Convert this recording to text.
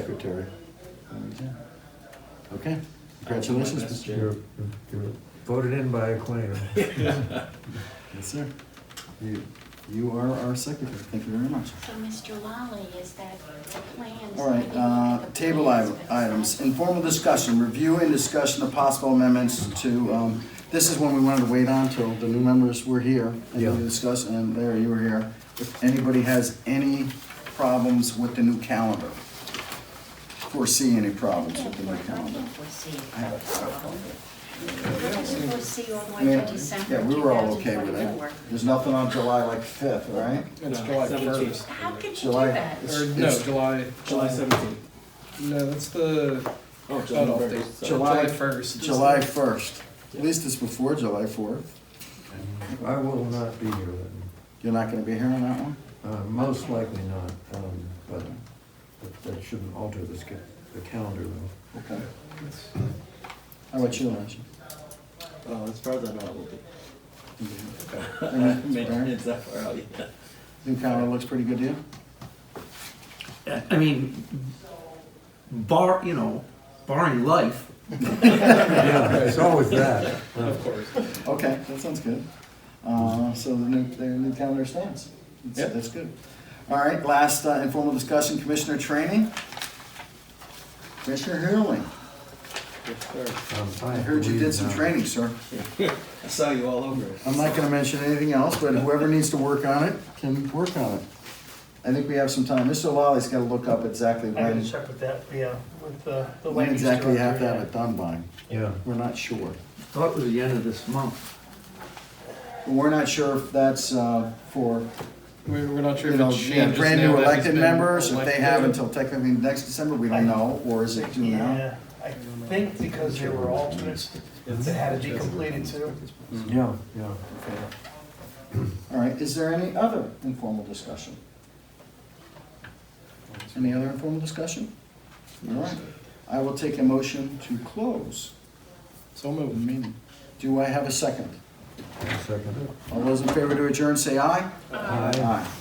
secretary. Okay, congratulations, Mr. You're, you're voted in by acclaim. Yes, sir. You, you are our secretary. Thank you very much. So, Mr. Lally, is that the plans? All right, maybe we'll uh, look at the table plans, item- but it's items, not- informal discussion, review and discussion of possible amendments to, um, this is one we wanted to wait on till the new members were here Yeah. and we discussed, and Larry, you were here. If anybody has any problems with the new calendar, foresee any I problems can't with the new for- I calendar? can't foresee it. I have a problem with it. I can foresee all the way Yeah, to December yeah, we were all okay with 2024. it. There's nothing on July like fifth, right? It's July first. How could you do July. that? Or it's- no, it's- July. July seventeenth. No, that's the Oh, cutoff date. July- July first. July first. At least it's before July fourth. I will not be here then, You're not gonna be here on that one? uh, most likely not, um, but that- that shouldn't alter the sca- the calendar though. Okay. How about you, Lance? Oh, as far as I know, it will be. New It's that far out, yeah. calendar looks pretty good to you? I mean, bar, you know, barring life, Yeah, it's always that. Of course. Okay, that sounds good. Uh, so the new, the new calendar stands. That's- Yep. That's good. All right, last uh, informal discussion, commissioner training. Commissioner Hurley, Yes, sir. Um, I heard you did some training, sir. I saw you all over it. I'm not gonna mention anything else, but whoever needs to work on it can work on it. I think we have some time. Mr. Lolly's gotta look up exactly I gotta when, check with that, yeah, with the, the when land use exactly you have to director, have it done by. Yeah, We're not sure. thought it was the end of this month. We're not sure if that's, uh, for, We're, we're not sure you if know, it's yeah, changed. brand just now new that he's elected been members, if they elected. have until technically next December, we don't know, or is it due now? Yeah, I think because there were alternates that had to be completed too. yeah, yeah. All right, is there any other informal discussion? Any other informal discussion? All right, I will take a motion to close So the moved. meeting. Do I have a second? Second. All those in favor to adjourn, say aye. Aye. Aye.